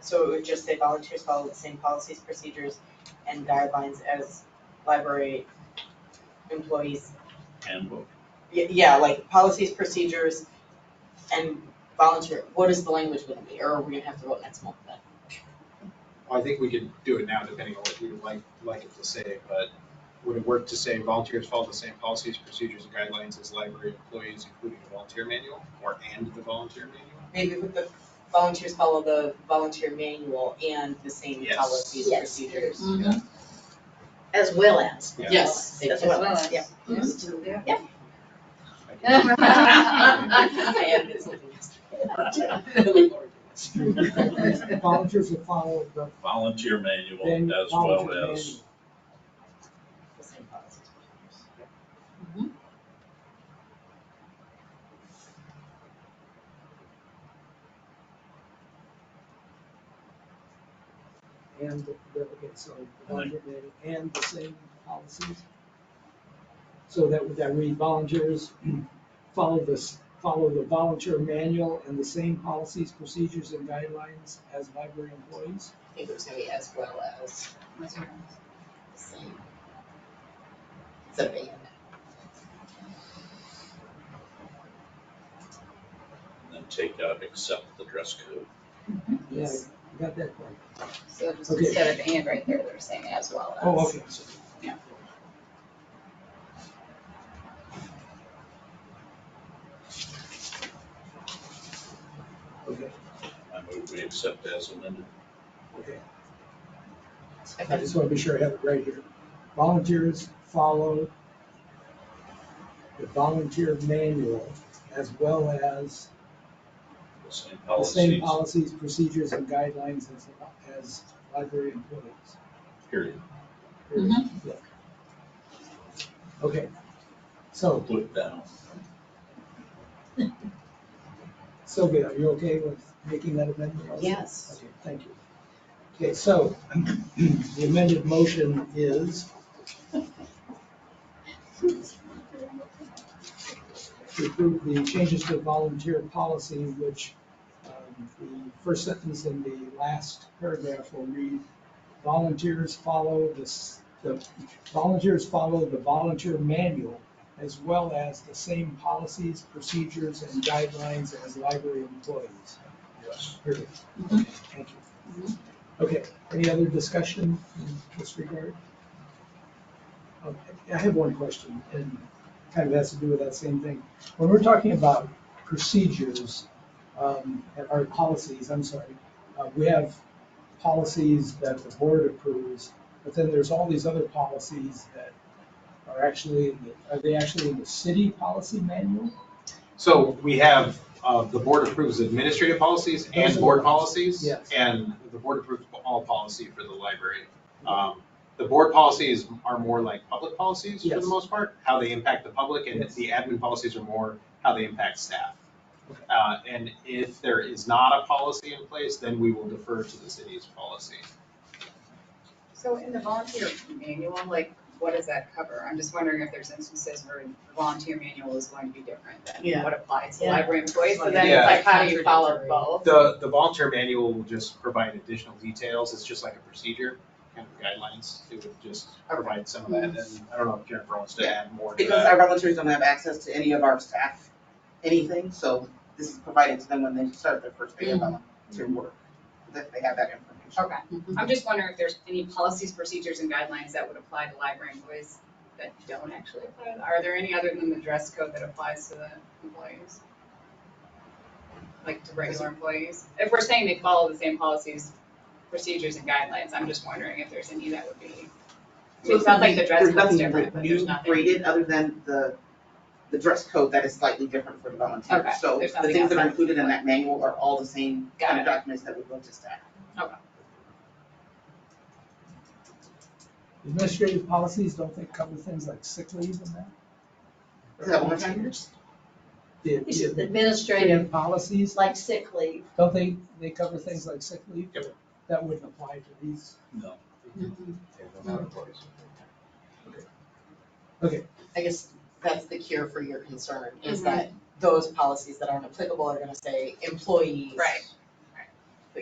So it would just say volunteers follow the same policies, procedures, and guidelines as library employees. handbook. Y- Yeah, like policies, procedures, and volunteer, what is the language gonna be, or are we gonna have to vote next month then? Well, I think we could do it now, depending on what we would like, like it to say, but would it work to say volunteers follow the same policies, procedures, and guidelines as library employees, including the volunteer manual, or and the volunteer manual? Maybe with the volunteers follow the volunteer manual and the same Yes. policies, Yes. procedures. As well as. Yeah. Yes. As well as, yeah. Mm-hmm. I had been sleeping yesterday. Volunteers will follow the Volunteer manual then as well volunteer as, The same policies, procedures. manual and the, okay, so the volunteer manual and the same policies. So that would that read volunteers follow this, follow the volunteer manual and the same policies, procedures and guidelines as library employees? I think it was gonna be as well as. the same. It's a band. and then take out except the dress code. Yeah, I got that part. So just Okay. instead of and right there, they're saying as well as. Oh, okay, so. Yeah. Okay, I move we accept as amended. okay. I Okay. just want to be sure I have it right here. Volunteers follow the volunteer manual as well as The same the same policies, policies, procedures, and guidelines as, as library employees. period. Yeah. Okay, so Put down. Sylvia, are you okay with making that amendment? also? Yes. Okay, thank you. Okay, so the amended motion is to approve the changes to volunteer policy, which um, the first sentence in the last paragraph will read, volunteers follow this, the volunteers follow the volunteer manual as well as the same policies, procedures, and guidelines as library employees. Yes. Period. Okay, Thank you. Okay, any other discussion in this regard? Okay, I have one question, and kind of has to do with that same thing. When we're talking about procedures, um, or policies, I'm sorry, uh, we have policies that the board approves, but then there's all these other policies that are actually, in the- are they actually in the city policy manual? So we have, uh, the board approves administrative policies Those are and the board ones. policies. Yes. And the board approves all policy for the library. Um, the board policies are more like public policies for the Yes. most part, how they impact the public, and Yes. the admin policies are more how they impact staff. Okay. Uh, and if there is not a policy in place, then we will defer to the city's policy. So in the volunteer manual, like, what does that cover? I'm just wondering if there's instances where the volunteer manual is going to be different Yeah. than what applies to Yeah. library employees, so then Yeah. it's like, how do you follow both? The, the volunteer manual will just provide additional details, it's just like a procedure, kind of guidelines, it would just provide some of that, and I don't know if Jennifer wants to add more to Because that. our volunteers don't have access to any of our staff, anything, so this is provided to them when they start their first day of Mm-hmm. volunteer work, that they have that information. Okay, I'm just wondering if there's any policies, procedures, and guidelines that would apply to library employees that don't actually apply. Are there any other than the dress code that applies to the employees? Like to regular employees? If we're saying they follow the same policies, procedures, and guidelines, I'm just wondering if there's any that would be. I mean, It sounds like the dress There's code's nothing different, that but there's you nothing. created other than the, the dress code that is slightly different for the Okay, volunteers. So the there's nothing things that are outside. included in that manual are all the same kind of Got documents that we go to staff. Administrative policies, don't they cover things like sick leave and that? Is that volunteers? The- It's just the- administrative, Policies, like sick leave. don't they, they cover things like sick leave? Yep. That wouldn't apply to these. No. I guess that's the cure for your concern, is that those policies that aren't applicable are gonna say employees. Right.